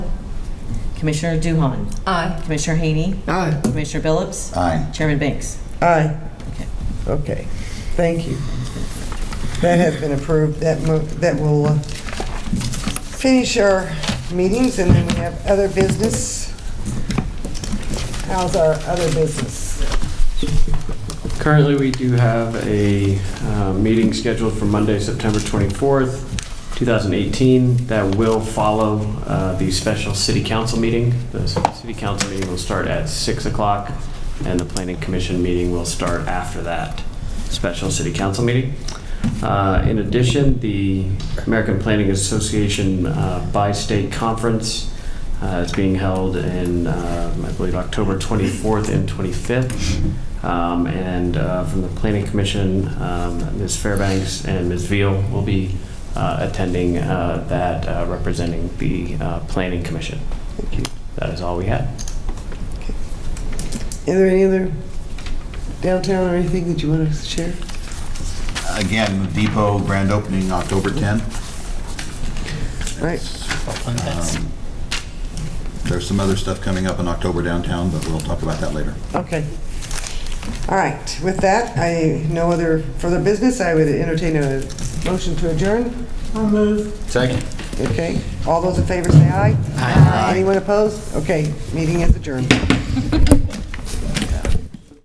Commissioner Duhan, Aye. Commissioner Haney, Aye. Commissioner Billups, Aye. Chairman Banks. Aye. Okay, thank you. That has been approved. That mo, that will uh, finish our meetings, and then we have other business. How's our other business? Currently, we do have a uh, meeting scheduled for Monday, September 24th, 2018. That will follow uh, the special city council meeting. The s- city council meeting will start at 6 o'clock, and the planning commission meeting will start after that special city council meeting. Uh, In addition, the American Planning Association uh, Bi-State Conference uh, is being held in, um, I believe, October 24th and 25th. Um, And uh, from the Planning Commission, um, Ms. Fairbanks and Ms. Veal will be uh, attending uh, that, uh, representing the uh, Planning Commission. Thank you. That is all we had. Is there any other downtown or anything that you want to share? Again, the Depot grand opening October 10th. Right, Um, There's some other stuff coming up in October downtown, but we'll talk about that later. okay. All right, with that, I, no other further business. I would entertain a motion to adjourn. Second. Okay, all those in favor say aye. Aye. Anyone opposed? Okay, meeting is adjourned.